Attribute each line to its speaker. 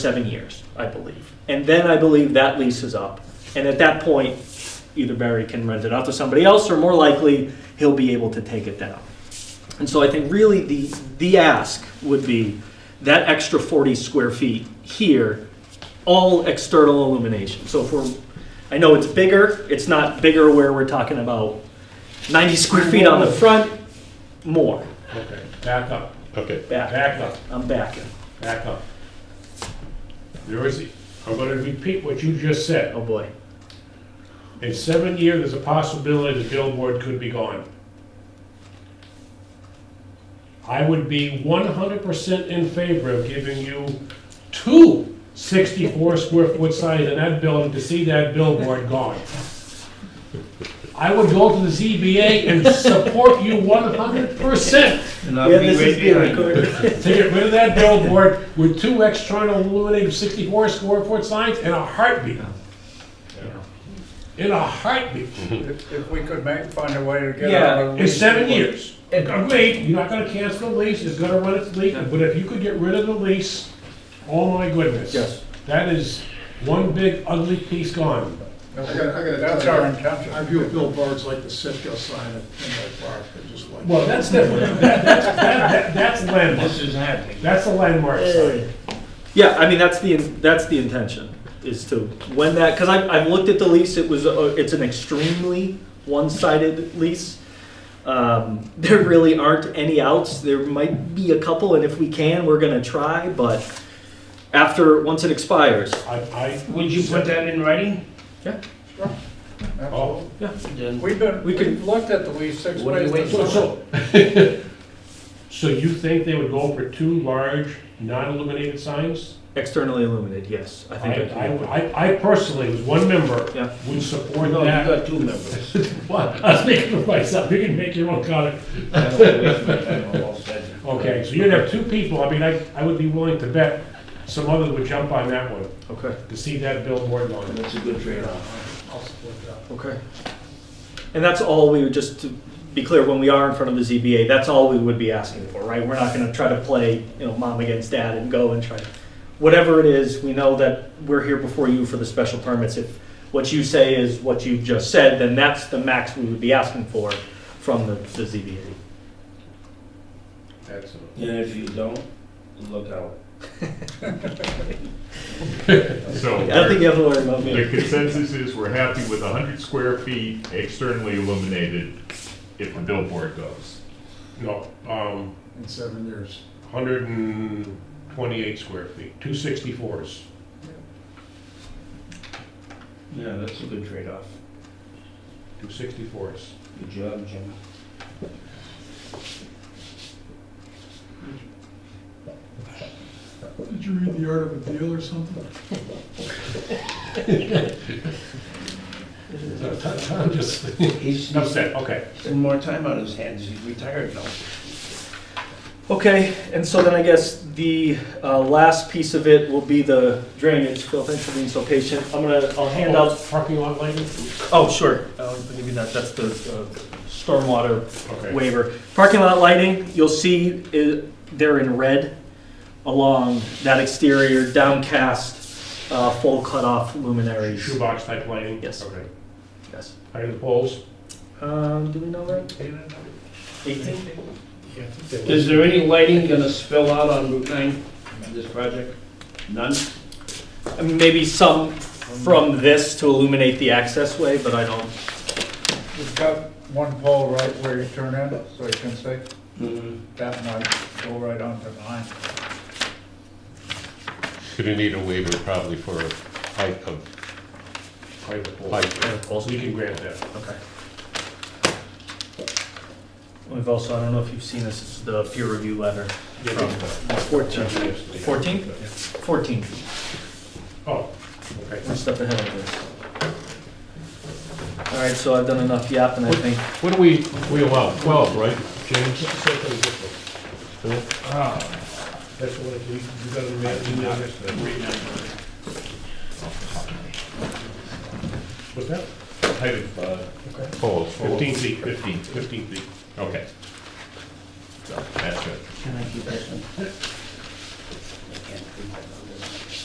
Speaker 1: seven years, I believe. And then I believe that lease is up. And at that point, either Barry can rent it out to somebody else, or more likely, he'll be able to take it down. And so I think really the, the ask would be that extra 40 square feet here, all external illumination. So if we're, I know it's bigger, it's not bigger where we're talking about 90 square feet on the front, more,
Speaker 2: Okay, back up,
Speaker 3: Okay,
Speaker 1: back,
Speaker 2: back up,
Speaker 1: I'm backing.
Speaker 2: back up. There is, I'm gonna repeat what you just said.
Speaker 1: Oh, boy.
Speaker 2: In seven years, there's a possibility the billboard could be gone. I would be one hundred percent in favor of giving you two 64 square foot signs in that building to see that billboard gone. I would go to the ZBA and support you one hundred percent.
Speaker 4: And
Speaker 1: Yeah,
Speaker 4: I'll be
Speaker 1: this is
Speaker 4: right
Speaker 1: being
Speaker 4: behind you.
Speaker 1: recorded.
Speaker 2: To get rid of that billboard with two external illuminated 64 square foot signs in a heartbeat. In a heartbeat.
Speaker 5: If if we could make, find a way to get
Speaker 4: Yeah,
Speaker 5: out of the
Speaker 2: It's
Speaker 5: lease.
Speaker 2: seven years. Agreed, you're not gonna cancel the lease, it's gonna run its length, but if you could get rid of the lease, oh my goodness.
Speaker 1: Yes.
Speaker 2: That is one big ugly piece gone.
Speaker 6: I gotta, I gotta
Speaker 5: That's
Speaker 6: tell
Speaker 5: our
Speaker 6: you,
Speaker 5: intention.
Speaker 6: I view billboards like the Sitka sign at Pinway Park, they're just like.
Speaker 2: Well, that's different, That- that's, that- that- that's landmark,
Speaker 4: This is happening.
Speaker 2: that's a landmark sign.
Speaker 1: Yeah, I mean, that's the, that's the intention, is to, when that, because I've, I've looked at the lease, it was, a- it's an extremely one-sided lease. Um, There really aren't any outs, there might be a couple, and if we can, we're gonna try, but after, once it expires,
Speaker 2: I, I,
Speaker 4: Would you put that in writing?
Speaker 2: oh,
Speaker 4: Then
Speaker 5: We've been,
Speaker 1: We could-
Speaker 5: we've looked at the lease six
Speaker 4: What are you
Speaker 5: ways
Speaker 4: waiting
Speaker 2: So-
Speaker 5: to
Speaker 2: So, so you think they would go for two large, non-illuminated signs?
Speaker 1: externally illuminated, yes, I
Speaker 2: I,
Speaker 1: think.
Speaker 2: I,
Speaker 1: I can.
Speaker 2: I- I personally, as one
Speaker 1: Yeah.
Speaker 2: member, would support
Speaker 4: No, you
Speaker 2: that.
Speaker 4: got two members.
Speaker 2: What? I was making for myself, you can make your own comment.
Speaker 4: I don't wanna waste my time on all sides.
Speaker 2: Okay, so you'd have two people, I mean, I, I would be willing to bet some others would jump on that one,
Speaker 1: Okay,
Speaker 2: to see that billboard on it.
Speaker 4: That's a good trade-off.
Speaker 1: okay. And that's all we would, just to be clear, when we are in front of the ZBA, that's all we would be asking for, right? We're not gonna try to play, you know, mom against dad and go and try, whatever it is, we know that we're here before you for the special permits. If what you say is what you just said, then that's the max we would be asking for from the, the ZBA.
Speaker 2: That's it.
Speaker 4: And if you don't, look out.
Speaker 1: I
Speaker 3: so
Speaker 1: don't think you have to worry about
Speaker 3: the
Speaker 1: me.
Speaker 3: consensus is we're happy with hundred square feet externally illuminated if the billboard goes.
Speaker 2: No, um,
Speaker 6: In seven years.
Speaker 2: hundred and twenty-eight square feet, two sixty-fours.
Speaker 4: Yeah, that's a good trade-off.
Speaker 2: Two sixty-fours.
Speaker 4: Good job, Jim.
Speaker 6: Did you read The Art of a Deal or something?
Speaker 2: I'm just,
Speaker 4: He's,
Speaker 2: enough said, okay.
Speaker 4: he's more time on his hands, he's retired now.
Speaker 1: Okay, and so then I guess the, uh, last piece of it will be the drainage. Phil, thanks for being so patient. I'm gonna, I'll hand out
Speaker 2: Parking lot lighting?
Speaker 1: Oh, sure, I'll give you that, that's the uh, stormwater
Speaker 2: Okay.
Speaker 1: waiver. Parking lot lighting, you'll see i- they're in red along that exterior downcast, uh, full cutoff luminaries.
Speaker 2: Shoebox type lighting?
Speaker 1: Yes.
Speaker 2: Okay.
Speaker 1: Yes.
Speaker 2: Higher the poles?
Speaker 1: Um, do we know that? Eighteen?
Speaker 4: Is there any lighting gonna spill out on Route 9 on this project? None?
Speaker 1: I mean, Maybe some from this to illuminate the access way, but I don't,
Speaker 5: We've got one pole right where you turn in, so you can see,
Speaker 4: Mm,
Speaker 5: that might go right onto mine.
Speaker 7: Gonna need a waiver probably for height of
Speaker 2: Higher the poles.
Speaker 7: height.
Speaker 2: So you can grant that.
Speaker 1: okay. We've also, I don't know if you've seen this, it's the peer review letter. Fourteen. Fourteen? Fourteen.
Speaker 2: Oh, okay.
Speaker 1: One step ahead of this. All right, so I've done enough yapping, I think.
Speaker 3: What do we, we allow twelve, right, James?
Speaker 2: Ah, That's what we, you got to read, you got What's that?
Speaker 3: Height of, uh, poles.
Speaker 2: Fifteen feet, fifteen,
Speaker 3: Fifteen.
Speaker 2: fifteen feet.
Speaker 3: Okay. So, That's good.
Speaker 4: Can I keep that one?